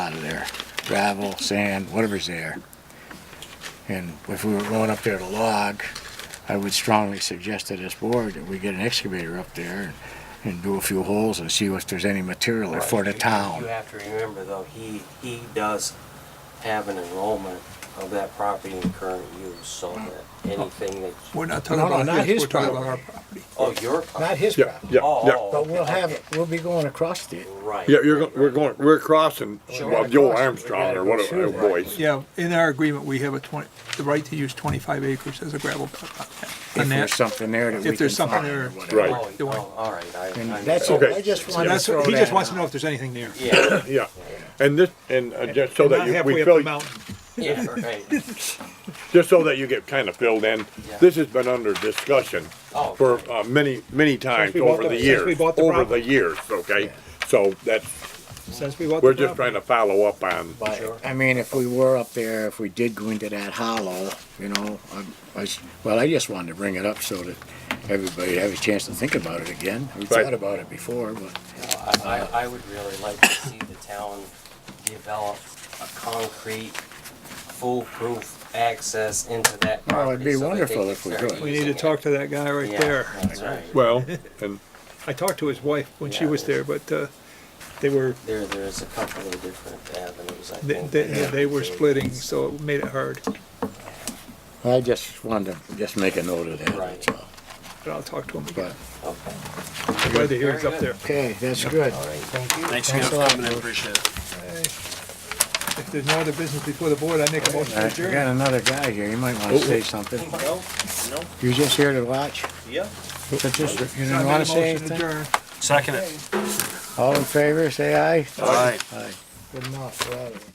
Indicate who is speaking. Speaker 1: gravel, sand, whatever's there. And if we were going up there to log, I would strongly suggest to this board that we get an excavator up there and, and do a few holes and see if there's any material there for the
Speaker 2: Right. You
Speaker 1: town.
Speaker 2: have to remember though, he, he does have an enrollment of that property in current use, so
Speaker 1: Mm.
Speaker 2: that anything that,
Speaker 3: We're not
Speaker 1: No,
Speaker 3: talking
Speaker 1: no,
Speaker 3: about
Speaker 1: not
Speaker 3: his,
Speaker 1: his
Speaker 3: we're talking about our
Speaker 1: property.
Speaker 3: property.
Speaker 2: oh, your.
Speaker 1: Not his
Speaker 4: Yeah,
Speaker 1: problem,
Speaker 4: yeah,
Speaker 2: Oh,
Speaker 4: yeah.
Speaker 1: but we'll have,
Speaker 2: okay.
Speaker 1: we'll be going across it.
Speaker 2: Right.
Speaker 4: Yeah, you're, go- we're going, we're crossing,
Speaker 1: Sure.
Speaker 4: well, Joe Armstrong or whatever,
Speaker 1: Sure.
Speaker 4: oh, voice.
Speaker 3: Yeah, in our agreement, we have a twenty, the right to use twenty-five acres as a gravel pit on that.
Speaker 1: If
Speaker 3: on that.
Speaker 1: there's something there that
Speaker 3: if
Speaker 1: we can
Speaker 3: there's something
Speaker 1: find
Speaker 3: there.
Speaker 1: or whatever.
Speaker 4: Right.
Speaker 2: Oh, oh, all right, I.
Speaker 1: And
Speaker 2: I-
Speaker 1: that's it,
Speaker 4: Okay.
Speaker 1: I just
Speaker 3: And
Speaker 1: wanted to
Speaker 3: that's,
Speaker 1: throw
Speaker 3: he
Speaker 1: that
Speaker 3: just wants
Speaker 1: out.
Speaker 3: to know if there's anything there.
Speaker 2: Yeah,
Speaker 4: Yeah, and this, and uh, just so
Speaker 3: And
Speaker 4: that
Speaker 3: not
Speaker 4: you,
Speaker 3: halfway
Speaker 4: we
Speaker 3: up the
Speaker 4: fill,
Speaker 3: mountain.
Speaker 2: yeah, right.
Speaker 4: just so that you get kind of filled in,
Speaker 2: Yeah.
Speaker 4: this has been under discussion
Speaker 2: Oh,
Speaker 4: for
Speaker 2: okay.
Speaker 4: uh, many, many times
Speaker 5: we bought
Speaker 4: over
Speaker 5: the-
Speaker 4: the
Speaker 5: since we
Speaker 4: years,
Speaker 5: bought the
Speaker 4: over the
Speaker 5: property.
Speaker 4: years, okay? So that's,
Speaker 5: Since we bought
Speaker 4: we're
Speaker 5: the
Speaker 4: just
Speaker 5: property.
Speaker 4: trying to follow up on,
Speaker 2: Sure.
Speaker 1: But, I mean, if we were up there, if we did go into that hollow, you know, I- I, s- well, I just wanted to bring it up so that everybody have a chance to think about it again. We
Speaker 4: Right.
Speaker 1: thought about it before, but
Speaker 2: I, I- I would really like to see the town develop a concrete foolproof access into that
Speaker 1: Well, it'd be
Speaker 2: property so that they
Speaker 1: wonderful
Speaker 2: can
Speaker 1: if we
Speaker 2: start
Speaker 1: could.
Speaker 3: We
Speaker 2: using
Speaker 3: need to
Speaker 2: it.
Speaker 3: talk to that guy right
Speaker 2: Yeah,
Speaker 3: there.
Speaker 2: That's right.
Speaker 4: well, and
Speaker 3: I talked to his wife when she
Speaker 2: Yeah.
Speaker 3: was there, but, uh, they were,
Speaker 2: There, there's a couple of different avenues, I
Speaker 3: they,
Speaker 2: think.
Speaker 3: they,
Speaker 2: that
Speaker 3: they were
Speaker 2: could-
Speaker 3: splitting, so it made it hard.
Speaker 1: I just wanted to just make a note of that, that's
Speaker 2: Right.
Speaker 1: all.
Speaker 3: But I'll talk to him again.
Speaker 1: But,
Speaker 2: Okay,
Speaker 3: I'm Glad to hear he's
Speaker 2: Very good.
Speaker 3: up there.
Speaker 1: okay, that's good.
Speaker 2: all right, thank you.
Speaker 1: Thanks
Speaker 6: Thanks again
Speaker 1: a
Speaker 6: for
Speaker 1: lot,
Speaker 6: coming in, appreciate it.
Speaker 3: If there's no other business before the board, I make a motion to
Speaker 1: I got
Speaker 3: adjourn.
Speaker 1: another guy here, you might wanna say something.
Speaker 6: No, no,
Speaker 1: You just here to watch?
Speaker 6: yeah.
Speaker 1: But just- You
Speaker 3: I
Speaker 1: didn't
Speaker 3: made a
Speaker 1: wanna say
Speaker 3: motion to
Speaker 1: anything?
Speaker 3: adjourn.
Speaker 6: Second it.
Speaker 1: All in favor, say aye.
Speaker 6: Aye.
Speaker 1: Good enough, we're out of here.